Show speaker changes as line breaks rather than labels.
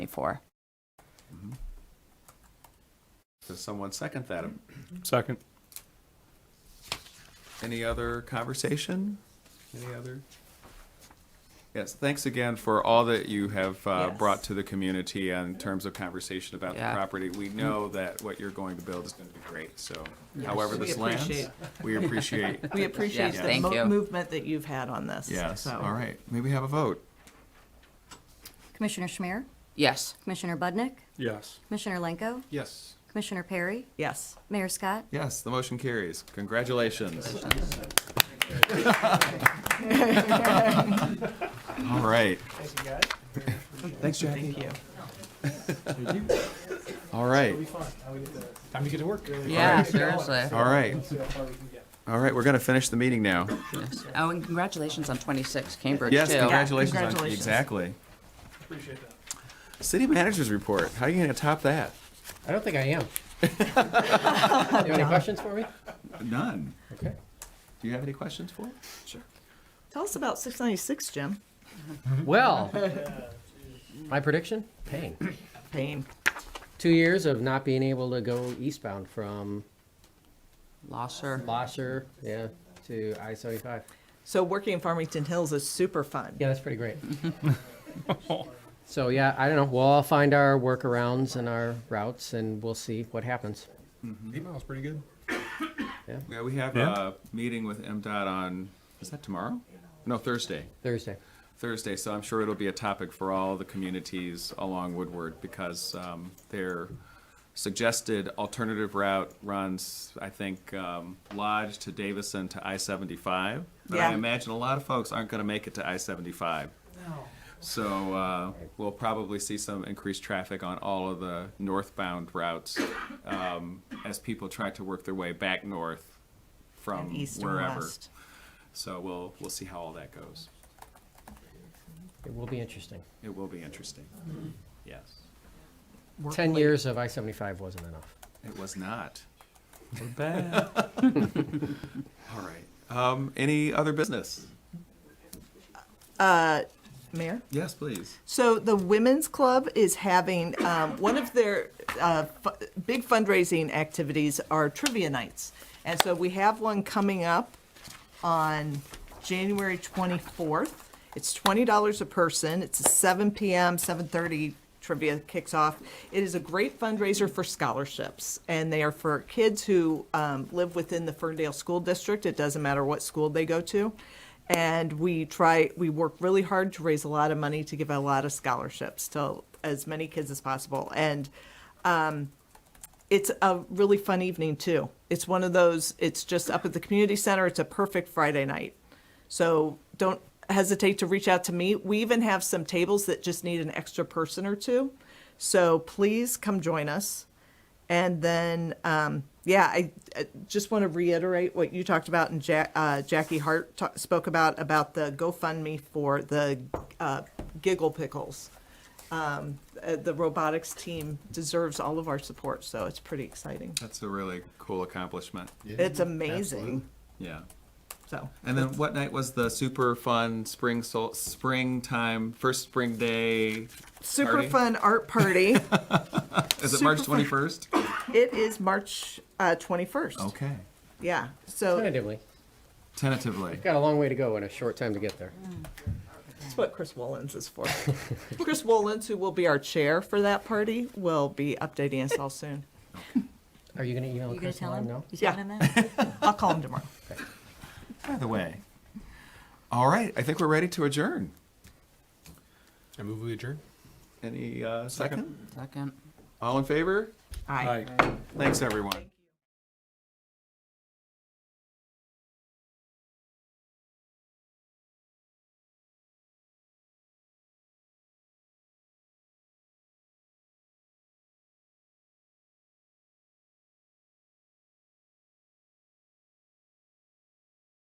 24.
Does someone second that?
Second.
Any other conversation? Any other? Yes, thanks again for all that you have uh,
Yes.
brought to the community in terms of conversation about the
Yeah.
property. We
Mm.
know that what you're going to build is going to be great, so however
We
this lands,
appreciate-
we appreciate.
We appreciate
Yes,
the
thank you.
mo- movement that you've had on this.
Yes,
so.
all right, maybe have a vote.
Commissioner Schmier,
Yes.
Commissioner Budnick,
Yes.
Commissioner Lenko,
Yes.
Commissioner Perry,
Yes.
Mayor Scott.
Yes, the motion carries. Congratulations. All right.
Thanks, Jackie. Thank you.
All right.
Time to get to work.
Yeah, seriously.
All right. All right, we're going to finish the meeting now.
Oh, and congratulations on 26, Cambridge,
Yes,
too.
congratulations. on-
congratulations.
Exactly.
Appreciate that.
City manager's report. How are you going to top that?
I don't think I am. you have any questions for me?
None.
Okay.
Do you have any questions for? Sure.
Tell us about 696, Jim.
Well, my prediction: pain.
Pain.
Two years of not being able to go eastbound from
Losser.
Blosser, yeah, to I seventy-five.
So working in Farmington Hills is super fun.
Yeah, that's pretty great. so yeah, I don't know. We'll all find our workarounds and our routes, and we'll see what happens.
Email's pretty good.
Yeah, we have
Yeah.
a meeting with MDOT on, is that tomorrow? No, Thursday.
Thursday.
Thursday, so I'm sure it'll be a topic for all the communities along Woodward because um, their suggested alternative route runs, I think, um, Lodge to Davison to I-75. But I
Yeah.
imagine a lot of folks aren't going to make it to I-75. So uh, we'll probably see some increased traffic on all of the northbound routes um, as people try to work their way back north
And
from
east and
Um, wherever.
west.
So we'll, we'll see how all that goes.
It will be interesting.
It will be interesting. Yes.
Ten years of I seventy-five wasn't enough.
It was not. We're bad. All right. Um, any other business?
Mayor?
Yes, please.
So the Women's Club is having, um, one of their, uh, fu- big fundraising activities are trivia nights. And so we have one coming up on January twenty-fourth. It's twenty dollars a person. It's a seven PM, seven thirty trivia kicks off. It is a great fundraiser for scholarships, and they are for kids who, um, live within the Ferndale School District. It doesn't matter what school they go to. And we try, we work really hard to raise a lot of money to give a lot of scholarships to as many kids as possible. And, it's a really fun evening too. It's one of those, it's just up at the community center. It's a perfect Friday night. So don't hesitate to reach out to me. We even have some tables that just need an extra person or two. So please come join us. And then, um, yeah, I, I just want to reiterate what you talked about and Ja- uh, Jackie Hart ta- spoke about, about the GoFundMe for the uh, Giggle Pickles uh, the robotics team deserves all of our support, so it's pretty exciting.
That's a really cool accomplishment.
It's amazing.
Yeah.
So
And then what night was the super fun spring sol- springtime first spring day?
super
Party?
fun art party.
Is it
Super
March
fun.
twenty first?
it is March uh, 21st.
Okay.
Yeah. So
Tentatively,
Tentatively.
got a long way to go and a short time to get there.
that's what Chris Wollens is for. Chris Wollens, who will be our chair for that party, will be updating us all soon.
Are you going to email
You gonna
Chris? and
tell
let
him?
know?
You
Yeah.
telling him that?
I'll call him tomorrow.
By the way. All right. I think we're ready to adjourn.
I move we adjourn.
Any uh, second?
Second.
All in favor?
Aye.
Thanks, everyone.